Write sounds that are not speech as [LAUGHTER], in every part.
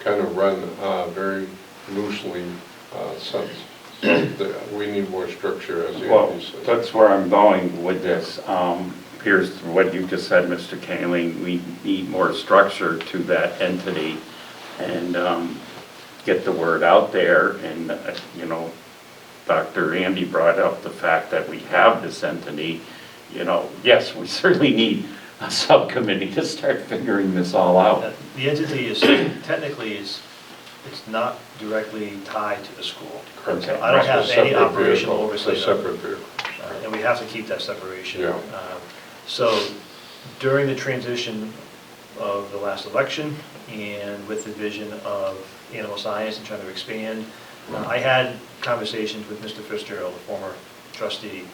kind of run uh, very loosely uh, since. So the- we need more structure, as Well, Andy said. that's where I'm going with this. Um, Here's what you just said, Mr. Kaling, we need more structure to that entity and um, get the word out there. And, uh, you know, Dr. Andy brought up the fact that we have this entity. You know, [LAUGHS] yes, we certainly need a subcommittee to start figuring this all out. That The entity is, technically is, it's not directly tied to the school. Okay. I don't have It's a any separate operational vehicle. oversight. It's a of it. separate vehicle. Uh, And we have to keep that separation. Yeah. Um, So during the transition of the last election and with the vision of animal science and trying to expand, uh, I had conversations with Mr. Fitzgerald, the former trustee,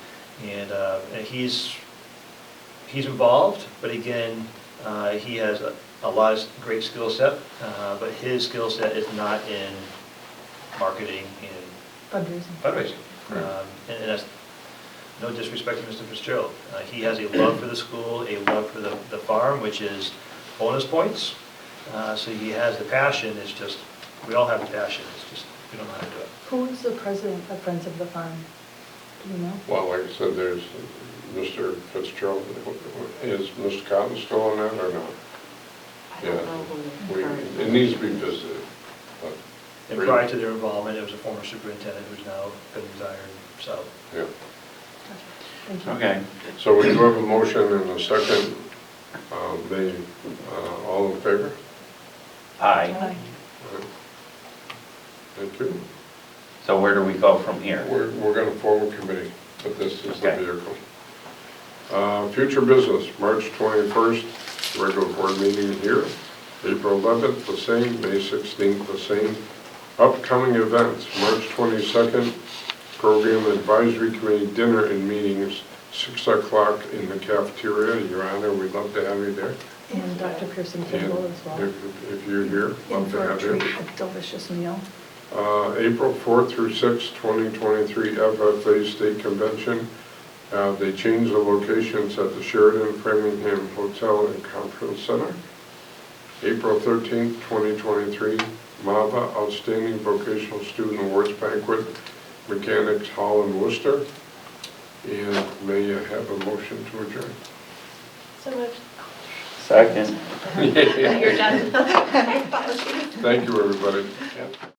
and uh, and he's, he's involved, but again, uh, he has a- a lot of great skill set, uh, but his skill set is not in marketing and Fundraising. fundraising. Right. Um, And and that's, no disrespect to Mr. Fitzgerald. Uh, He has a love for the school, a love for the, the farm, which is bonus points. Uh, So he has the passion, it's just, we all have the passion, it's just, we don't know how to do it. Who is the president of Friends of the Farm? Do you know? Well, like I said, there's Mr. Fitzgerald, is Mr. Cotton still on that or not? I Yeah, don't know who we- the It needs to be visited. but- And prior to their involvement, it was a former superintendent who's now been retired, so. Yeah. Gotcha. Thank you. Okay. So we do have a motion and a second. Um, They, uh, all in favor? Aye. Aye. All right. Thank you. So where do we go from here? We're, we're going to form a committee, but this is the Okay. vehicle. Uh, Future business, March 21st, regular board meeting here. April 11th, the same, May 16th, the same. Upcoming events, March 22nd, Program Advisory Committee dinner and meetings, 6 o'clock in the cafeteria. Your Honor, we'd love to have you there. And Dr. Pearson Kimball as well. And If if you're here, And love to for a have you. treat, a delicious meal. Uh, April 4th through 6th, 2023 FFA State Convention. Uh, They changed the locations at the Sheridan Framingham Hotel and Conference Center. April 13th, 2023 MAVA Outstanding Vocational Student Awards Banquet, Mechanics Hall in Worcester. And may I have a motion to adjourn? [LAUGHS] So moved. Second. You're done. Thank you, everybody.